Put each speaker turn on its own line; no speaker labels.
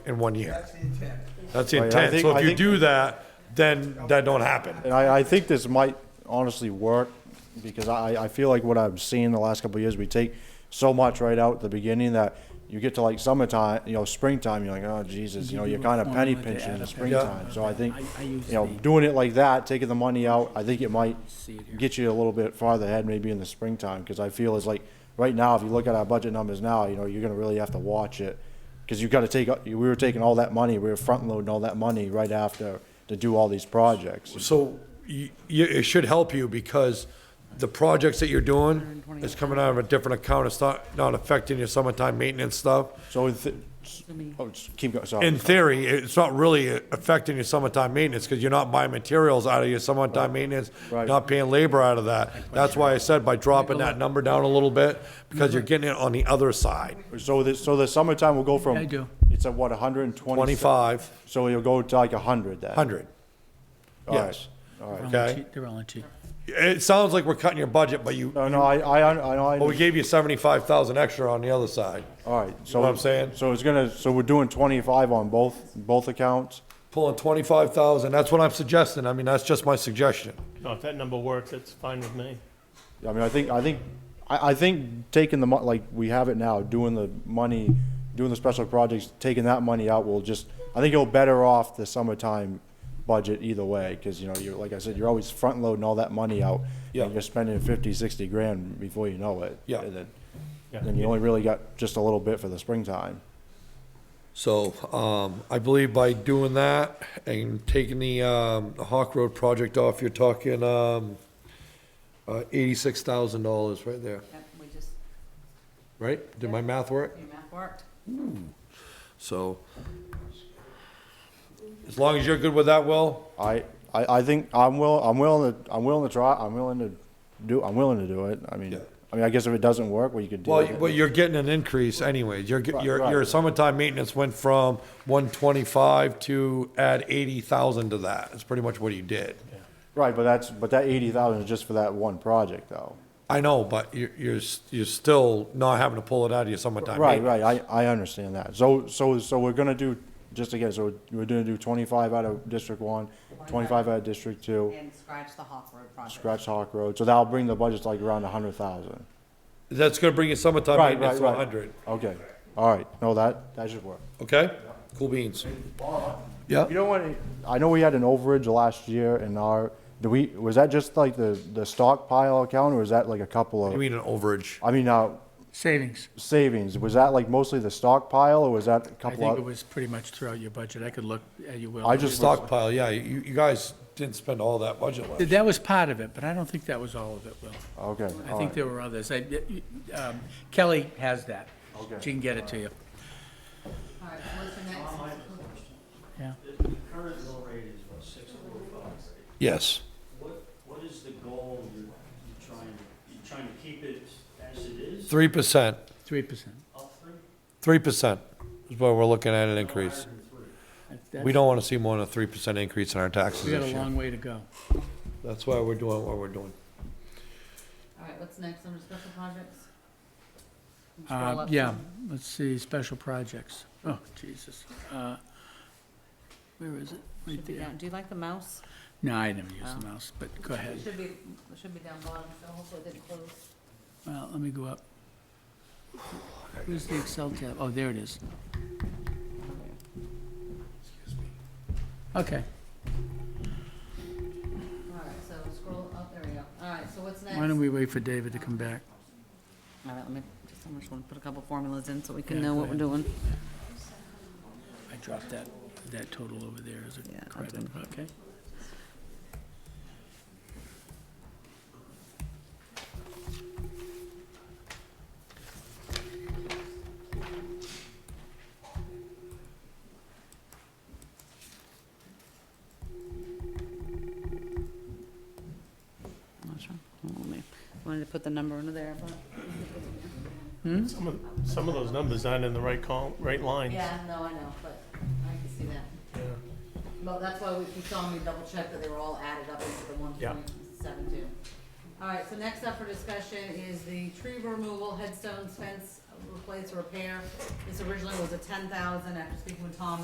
in one year.
That's the intent.
That's the
Right, I
intent.
think-
So
I
if you
think-
do that, then that don't happen.
And I, I think this might honestly work, because I, I feel like what I've seen the last couple of years, we take so much right out at the beginning that you get to like summertime, you know, springtime, you're like, oh, Jesus, you know, you're kind of penny pinching in the springtime. So I think, you know, doing it like that, taking the money out, I think it might get you a little bit farther ahead, maybe in the springtime, because I feel it's like, right now, if you look at our budget numbers now, you know, you're gonna really have to watch it. Because you've got to take, we were taking all that money, we were front loading all that money right after to do all these projects.
So you, you, it should help you because the projects that you're doing is coming out of a different account. It's not, not affecting your summertime maintenance stuff.
So in, th- s- oh, just keep going, sorry.
In theory, it's not really affecting your summertime maintenance because you're not buying materials out of your summertime maintenance,
Right.
not paying labor out of that. That's why I said by dropping that number down a little bit, because you're getting it on the other side.
So the, so the summertime will go from.
I do.
It's at what, hundred and twenty?
Twenty-five,
So you'll go to like hundred then?
hundred.
All right.
yes.
All right.
Okay.
They're all on cheap.
It sounds like we're cutting your budget, but you,
No, no, I, I, I, I,
but we gave you seventy-five thousand extra on the other side.
all right, so.
know what I'm saying?
So it's gonna, so we're doing twenty-five on both, both accounts?
Pulling twenty-five thousand, that's what I'm suggesting. I mean, that's just my suggestion.
No, if that number works, it's fine with me.
I mean, I think, I think, I, I think taking the mon, like, we have it now, doing the money, doing the special projects, taking that money out will just, I think you'll better off the summertime budget either way, cause you know, you're, like I said, you're always front loading all that money out.
Yeah.
And you're spending fifty, sixty grand before you know it.
Yeah.
And then,
Yeah.
then you only really got just a little bit for the springtime.
So, um, I believe by doing that and taking the, um, the Hawk Road project off, you're talking, um, uh, eighty-six thousand dollars right there,
Yep, we just,
right? Did my math work?
your math worked.
So, as long as you're good with that, Will,
I, I, I think I'm will, I'm willing to, I'm willing to try, I'm willing to do, I'm willing to do it. I mean,
Yeah.
I mean, I guess if it doesn't work, well, you could deal
Well,
with
you-
it.
well, you're getting an increase anyways. Your,
Right,
your,
right.
your summertime maintenance went from one twenty-five to add eighty thousand to that. That's pretty much what you did.
Right, but that's, but that eighty thousand is just for that one project, though.
I know, but you're, you're, s- you're still not having to pull it out of your summertime
Right,
maintenance.
right, I, I understand that. So, so, so we're gonna do, just again, so we're gonna do twenty-five out of District One, twenty-five out of District Two,
And scratch the Hawk Road project.
scratch Hawk Road, so that'll bring the budget to like around a hundred thousand.
That's gonna bring your summertime
Right,
maintenance to
right, right.
hundred,
Okay, all right, no, that, that should work.
okay? Cool beans. Yeah,
You know what, I know we had an overage last year in our, do we, was that just like the, the stockpile account, or was that like a couple
you
of,
mean an overage.
I mean, uh,
Savings.
savings, was that like mostly the stockpile, or was that a
I
couple
think it
of?
was pretty much throughout your budget. I could look, at you will.
I just
Stockpile, yeah, you, you guys didn't spend all that budget last.
That was part of it, but I don't think that was all of it, Will.
Okay,
I
all
think
right.
there were others. I- um, Kelly has that.
Okay.
She can get it to you.
All right, what's the next?
Yeah.
The current mill rate is what, six four five?
Yes.
What, what is the goal you're, you're trying, to you're trying to keep it as it is,
Three percent,
Three percent.
up three?
three percent is what we're looking at an increase.
Higher than three.
We don't want to see more than a three percent increase in our taxes
We got
this
a
year.
long way to go.
That's why we're doing what we're doing.
All right, what's next under special projects? Scroll
Uh,
up
yeah,
some.
let's see, special projects. Oh, Jesus. Uh, Where is it? Right
Should be
there.
down, do you like the mouse?
No, I never use the mouse, but go ahead.
It should be, it should be down bottom, so hopefully it didn't close.
Well, let me go up. Where's the Excel tab? Oh, there it is. Okay,
All right, so scroll up, there we go. All right, so what's next?
why don't we wait for David to come back?
All right, let me, just, I'm just gonna put a couple formulas in so we can
Yeah,
know
go
what we're doing.
I dropped that, that total over there as
Yeah,
a
I'll
credit, okay?
Not sure. Hold on, let me- Wanted to put the number under there, but.
Hmm? Some of, some of those numbers aren't in the right col, right lines.
Yeah, no, I know, but I can see that. Well, that's why we, you saw me double check that they were all added up into the one
Yeah.
point seven two. All right, so next up for discussion is the tree removal, headstones, fence replace, repair. This originally was a ten thousand, after speaking with Tom,